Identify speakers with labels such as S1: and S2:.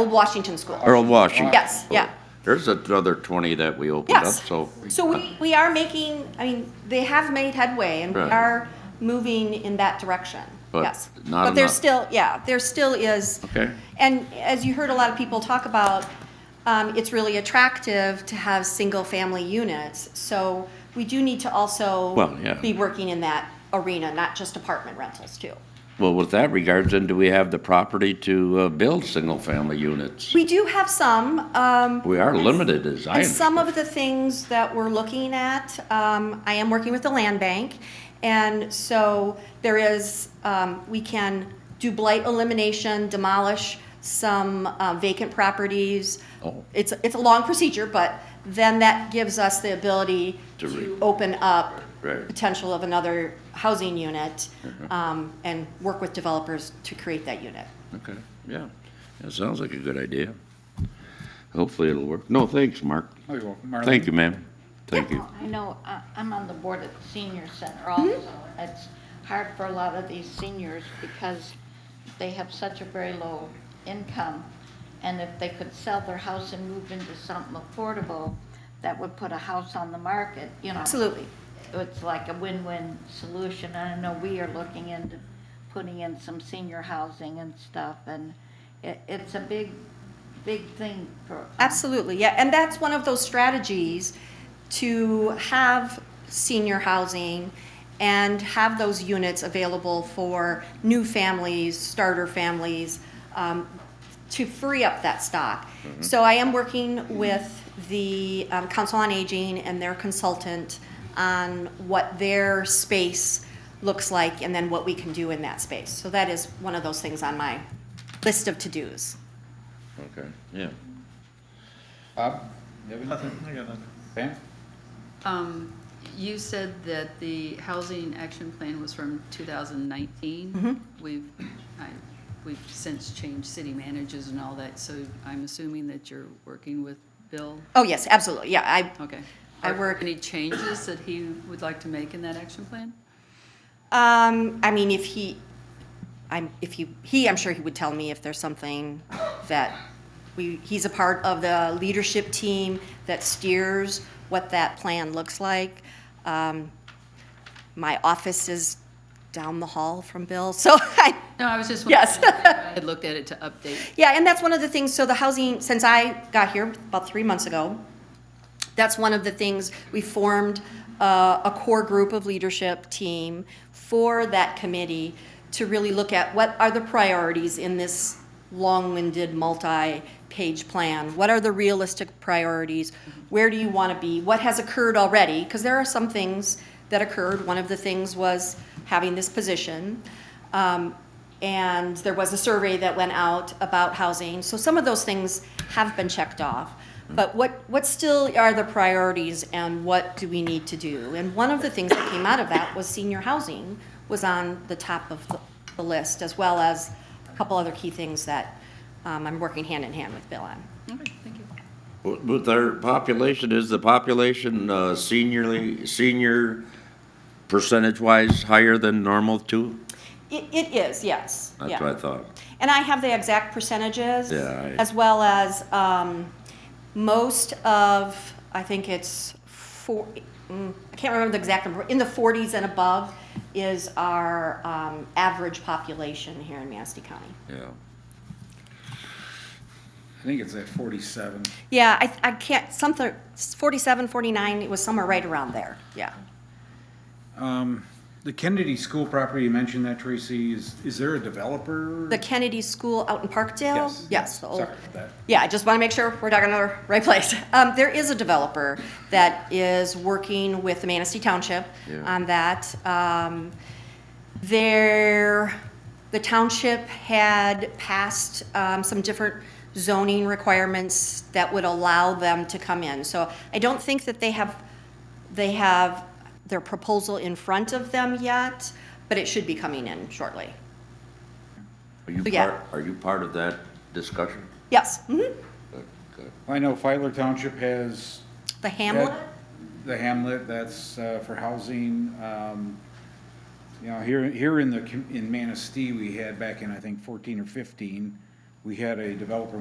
S1: Old Washington School.
S2: Earl Washington.
S1: Yes, yeah.
S2: There's another 20 that we opened up,
S1: Yes.
S2: so. uh,
S1: So we, we are making, I mean, they have made headway and we
S2: Right.
S1: are moving in that direction.
S2: But
S1: Yes.
S2: not
S1: But there's
S2: enough.
S1: still, yeah, there still is.
S2: Okay.
S1: And as you heard a lot of people talk about, um, it's really attractive to have single-family units. So we do need to also
S2: Well, yeah.
S1: be working in that arena, not just apartment rentals too.
S2: Well, with that regards, then do we have the property to uh, build single-family units?
S1: We do have some, um,
S2: We are limited, as
S1: And
S2: I understand.
S1: some of the things that we're looking at, um, I am working with the land bank, and so there is, um, we can do blight elimination, demolish some uh, vacant properties.
S2: Oh.
S1: It's, it's a long procedure, but then that gives us the ability
S2: To re-
S1: to open up
S2: Right. Uh-huh.
S1: potential of another housing unit, um, and work with developers to create that unit.
S2: Okay, yeah, that sounds like a good idea. Hopefully it'll work. No, thanks, Mark.
S3: Oh, you're welcome, Marlene.
S2: Thank you, ma'am. Thank you.
S4: I know, I- I'm on the board at the senior center also. It's hard for a lot of these seniors because they have such a very low income. And if they could sell their house and move into something affordable, that would put a house on the market, you know.
S1: Absolutely.
S4: It's like a win-win solution. I know we are looking into putting in some senior housing and stuff. And it, it's a big, big thing for.
S1: Absolutely, yeah, and that's one of those strategies to have senior housing and have those units available for new families, starter families, um, to free up that stock. So I am working with the um, Council on Aging and their consultant on what their space looks like and then what we can do in that space. So that is one of those things on my list of to-dos.
S2: Okay, yeah.
S3: Bob, you have anything? I got nothing. Pam?
S5: Um, you said that the housing action plan was from two thousand nineteen. We've, I, we've since changed city managers and all that, so I'm assuming that you're working with Bill?
S1: Oh, yes, absolutely, yeah, I,
S5: Okay.
S1: I
S5: Are
S1: work-
S5: Any changes that he would like to make in that action plan?
S1: Um, I mean, if he, I'm, if you, he, I'm sure he would tell me if there's something that we, he's a part of the leadership team that steers what that plan looks like. Um, my office is down the hall from Bill, so I,
S5: No, I was just.
S1: Yes.
S5: wondering if I Had looked at it to update.
S1: yeah, and that's one of the things, so the housing, since I got here about three months ago, that's one of the things, we formed uh, a core group of leadership team for that committee to really look at what are the priorities in this long-winded, multi-page plan? What are the realistic priorities? Where do you want to be? What has occurred already? Because there are some things that occurred. One of the things was having this position. Um, And there was a survey that went out about housing. So some of those things have been checked off. But what, what still are the priorities and what do we need to do? And one of the things that came out of that was senior housing was on the top of the, the list, as well as a couple other key things that um, I'm working hand in hand with Bill on.
S5: Okay, thank you.
S2: With with our population, is the population uh, seniorly, senior percentage-wise higher than normal too?
S1: It, it is, yes.
S2: That's
S1: yeah.
S2: what I thought.
S1: And I have the exact percentages.
S2: Yeah, I-
S1: As well as, um, most of, I think it's four, mm, I can't remember the exact number, in the forties and above is our, um, average population here in Manistee County.
S2: Yeah.
S3: I think it's at forty-seven.
S1: Yeah, I, I can't, something, forty-seven, forty-nine, it was somewhere right around there, yeah.
S3: Um, The Kennedy School property, you mentioned that, Tracy, is, is there a developer?
S1: The Kennedy School out in Parkdale? Yes, the
S3: Sorry
S1: old,
S3: about that.
S1: Yeah, I just want to make sure we're talking to the right place. Um, there is a developer that is working with the Manistee Township
S2: Yeah.
S1: on that. Um, there, the township had passed, um, some different zoning requirements that would allow them to come in. So I don't think that they have, they have their proposal in front of them yet, but it should be coming in shortly.
S2: Are you
S1: Yeah.
S2: part, are you part of that discussion?
S1: Yes, mhm.
S2: Good, good.
S3: I know Filer Township has.
S1: The Hamlet?
S3: The Hamlet, that's uh, for housing. um, You know, here, here in the, com- in Manistee, we had back in, I think, fourteen or fifteen, we had a developer